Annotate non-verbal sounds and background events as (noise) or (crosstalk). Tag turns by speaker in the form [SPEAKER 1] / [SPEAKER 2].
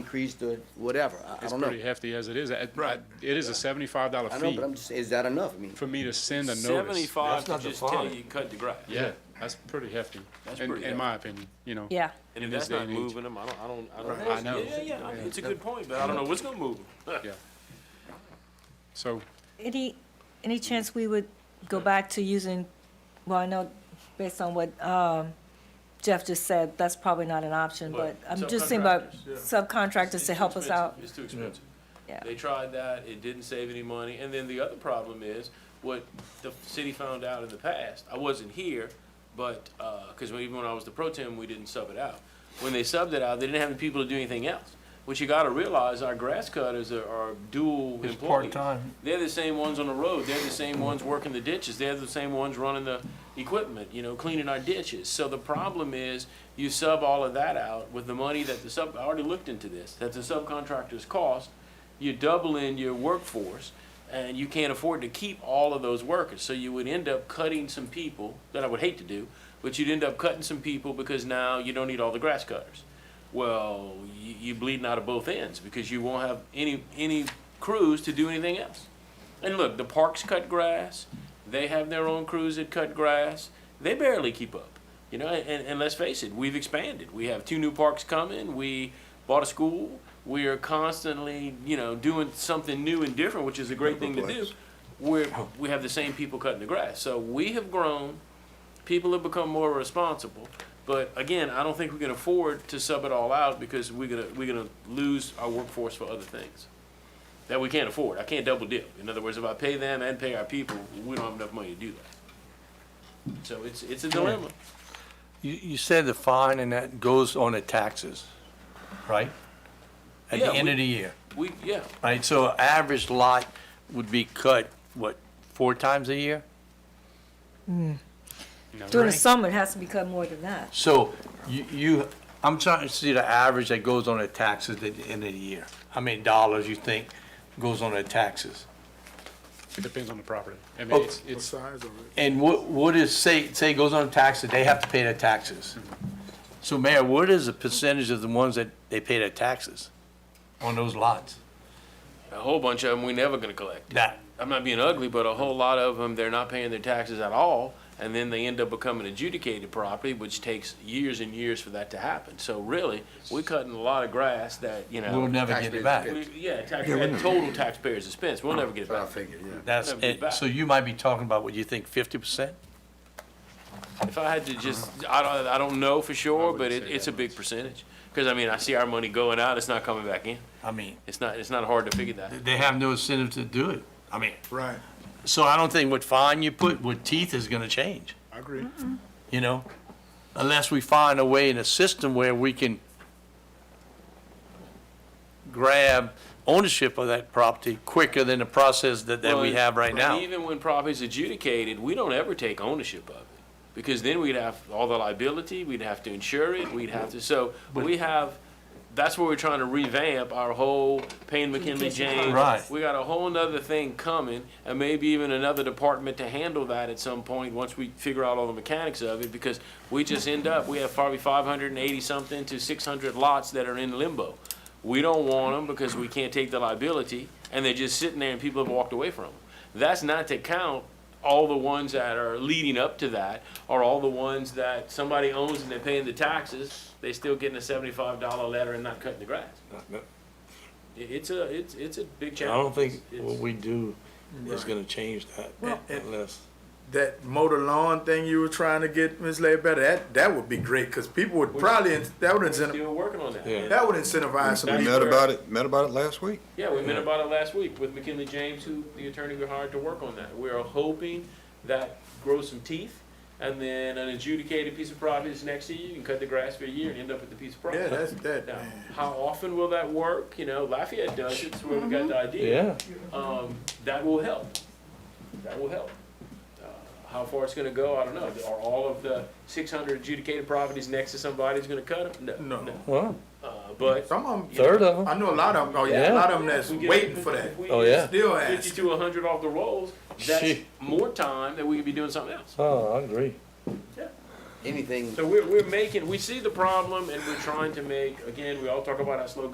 [SPEAKER 1] increased or whatever, I, I
[SPEAKER 2] It's
[SPEAKER 1] don't know.
[SPEAKER 2] pretty hefty as it is. It-
[SPEAKER 3] Right.
[SPEAKER 2] It is a seventy-five dollar
[SPEAKER 1] I know,
[SPEAKER 2] fee
[SPEAKER 1] but I'm just, is that enough? I mean,
[SPEAKER 2] for me to send a notice.
[SPEAKER 3] Seventy-five
[SPEAKER 4] That's
[SPEAKER 3] to
[SPEAKER 4] not
[SPEAKER 3] just
[SPEAKER 4] defined.
[SPEAKER 3] tell you you cut the grass.
[SPEAKER 2] Yeah, that's pretty hefty,
[SPEAKER 3] That's
[SPEAKER 2] in,
[SPEAKER 3] pretty
[SPEAKER 2] in my opinion, you know.
[SPEAKER 5] Yeah.
[SPEAKER 2] in
[SPEAKER 3] And if
[SPEAKER 2] this
[SPEAKER 3] that's
[SPEAKER 2] day
[SPEAKER 3] not
[SPEAKER 2] and age.
[SPEAKER 4] moving them, I don't, I don't, I don't.
[SPEAKER 2] I know.
[SPEAKER 3] Yeah, yeah, I mean, it's a good point, but I don't know what's gonna move them.
[SPEAKER 2] (laughs) Yeah. So,
[SPEAKER 5] Any, any chance we would go back to using, well, I know based on what um, Jeff just said, that's probably not an option, but I'm just thinking about
[SPEAKER 3] Subcontractors,
[SPEAKER 5] subcontractors
[SPEAKER 3] It's
[SPEAKER 5] to
[SPEAKER 3] too
[SPEAKER 5] help us
[SPEAKER 3] expensive.
[SPEAKER 5] out.
[SPEAKER 3] It's too expensive.
[SPEAKER 5] Yeah.
[SPEAKER 3] They tried that, it didn't save any money, and then the other problem is, what the city found out in the past, I wasn't here, but, uh 'cause cause when- even when I was the pro tem, we didn't sub it out. When they subbed it out, they didn't have the people to do anything else. What you gotta realize, our grass cutters are, are dual
[SPEAKER 4] It's
[SPEAKER 3] employees.
[SPEAKER 4] part-time.
[SPEAKER 3] They're the same ones on the road, they're the same ones working the ditches, they're the same ones running the equipment, you know, cleaning our ditches. So the problem is, you sub all of that out with the money that the sub, I already looked into this, that the subcontractors cost, you're doubling your workforce, and you can't afford to keep all of those workers. So you would end up cutting some people, that I would hate to do, but you'd end up cutting some people because now you don't need all the grass cutters. Well, you, you bleeding out of both ends because you won't have any, any crews to do anything else. And look, the parks cut grass. They have their own crews that cut grass. They barely keep up. You know, and, and let's face it, we've expanded. We have two new parks coming. We bought a school. We are constantly, you know, doing something new and different, which is a great thing to do. We're, we have the same people cutting the grass. So we have grown. People have become more responsible. But again, I don't think we can afford to sub it all out because we're gonna, we're gonna lose our workforce for other things that we can't afford. I can't double dip. In other words, if I pay them and pay our people, we don't have enough money to do that. So it's, it's a dilemma.
[SPEAKER 4] You, you said the fine and that goes on the taxes, right? At
[SPEAKER 3] Yeah,
[SPEAKER 4] the end
[SPEAKER 3] we-
[SPEAKER 4] of the year,
[SPEAKER 3] We, yeah,
[SPEAKER 4] right? So average lot would be cut, what, four times a year?
[SPEAKER 2] you know,
[SPEAKER 5] During the summer, it has to become more than that.
[SPEAKER 4] So you, you, I'm trying to see the average that goes on the taxes at the end of the year. How many dollars you think goes on the taxes?
[SPEAKER 2] it depends on the property. I mean,
[SPEAKER 4] Oh.
[SPEAKER 2] it's, it's,
[SPEAKER 6] size of it.
[SPEAKER 4] And what, what is, say, say goes on taxes, they have to pay their taxes. So Mayor, what is the percentage of the ones that they pay their taxes on those lots?
[SPEAKER 3] a whole bunch of them we never gonna collect.
[SPEAKER 4] That,
[SPEAKER 3] I'm not being ugly, but a whole lot of them, they're not paying their taxes at all. And then they end up becoming adjudicated property, which takes years and years for that to happen. So really, we're cutting a lot of grass that, you know.
[SPEAKER 4] we'll never get it back.
[SPEAKER 3] we- Yeah, tax, at total taxpayers' expense. We'll never get it
[SPEAKER 1] I
[SPEAKER 3] back.
[SPEAKER 1] figured, yeah.
[SPEAKER 4] That's,
[SPEAKER 3] Never get
[SPEAKER 4] it.
[SPEAKER 3] back.
[SPEAKER 4] so you might be talking about, what you think, fifty percent?
[SPEAKER 3] If I had to just, I don't, I don't know for sure, but
[SPEAKER 2] wouldn't
[SPEAKER 3] it,
[SPEAKER 2] say
[SPEAKER 3] it's a
[SPEAKER 2] that
[SPEAKER 3] big percentage. Because I mean, I see our money going out, it's not coming back in.
[SPEAKER 4] I mean,
[SPEAKER 3] It's not, it's not hard to figure that.
[SPEAKER 4] they have no incentive to do it. I mean,
[SPEAKER 6] Right,
[SPEAKER 4] so I don't think what fine you put with teeth is gonna change.
[SPEAKER 6] I agree.
[SPEAKER 4] you know, unless we find a way in a system where we can grab ownership of that property quicker than the process that, that we
[SPEAKER 3] Well,
[SPEAKER 4] have right now.
[SPEAKER 3] Even when property's adjudicated, we don't ever take ownership of it. Because then we'd have all the liability, we'd have to insure it, we'd have to, so we have, that's where we're trying to revamp our whole Payne McKinley James.
[SPEAKER 4] Right.
[SPEAKER 3] We got a whole nother thing coming and maybe even another department to handle that at some point, once we figure out all the mechanics of it. Because we just end up, we have probably five hundred and eighty something to six hundred lots that are in limbo. We don't want them because we can't take the liability, and they're just sitting there and people have walked away from them. That's not to count all the ones that are leading up to that, or all the ones that somebody owns and they're paying the taxes, they still getting a seventy-five dollar letter and not cutting the grass. It- It's a, it's, it's a big
[SPEAKER 4] I
[SPEAKER 3] challenge.
[SPEAKER 4] don't think
[SPEAKER 3] It's-
[SPEAKER 4] what we do is
[SPEAKER 6] Right.
[SPEAKER 4] gonna change that
[SPEAKER 6] Well-
[SPEAKER 4] unless,
[SPEAKER 6] That motor lawn thing you were trying to get, Ms. Ledbetter, that, that would be great, because people would probably, in- that would
[SPEAKER 3] We're
[SPEAKER 6] incentiv-
[SPEAKER 3] still working on that.
[SPEAKER 4] Yeah.
[SPEAKER 6] that would incentivize some
[SPEAKER 3] That's
[SPEAKER 6] people.
[SPEAKER 3] where-
[SPEAKER 7] Met about it, met about it last week.
[SPEAKER 3] Yeah, we met about it last week with McKinley James, who, the attorney we hired to work on that. We are hoping that grows some teeth, and then an adjudicated piece of property is next to you, you can cut the grass for a year and end up with the piece of property.
[SPEAKER 6] Yeah, that's, that,
[SPEAKER 3] Now,
[SPEAKER 6] man.
[SPEAKER 3] how often will that work? You know, Lafayette does it, it's where we got the idea.
[SPEAKER 4] Mm-hmm. yeah,
[SPEAKER 3] Um, that will help. That will help. Uh, How far it's gonna go, I don't know. Are all of the six hundred adjudicated properties next to somebody's gonna cut them? No,
[SPEAKER 6] No.
[SPEAKER 3] no.
[SPEAKER 4] well,
[SPEAKER 3] Uh, but.
[SPEAKER 6] Some of them,
[SPEAKER 4] third of
[SPEAKER 6] I
[SPEAKER 4] them.
[SPEAKER 6] know a lot of them, oh yeah, a
[SPEAKER 4] Yeah.
[SPEAKER 6] lot of them that's
[SPEAKER 3] We get-
[SPEAKER 6] waiting for that,
[SPEAKER 3] if we
[SPEAKER 4] Oh,
[SPEAKER 3] get
[SPEAKER 4] yeah.
[SPEAKER 6] still
[SPEAKER 3] fifty
[SPEAKER 6] asking.
[SPEAKER 3] to a hundred off the rolls, that's
[SPEAKER 4] Shit.
[SPEAKER 3] more time that we could be doing something else.
[SPEAKER 4] Oh, I agree.
[SPEAKER 1] Anything
[SPEAKER 3] So we're, we're making, we see the problem and we're trying to make, again, we all talk about our slow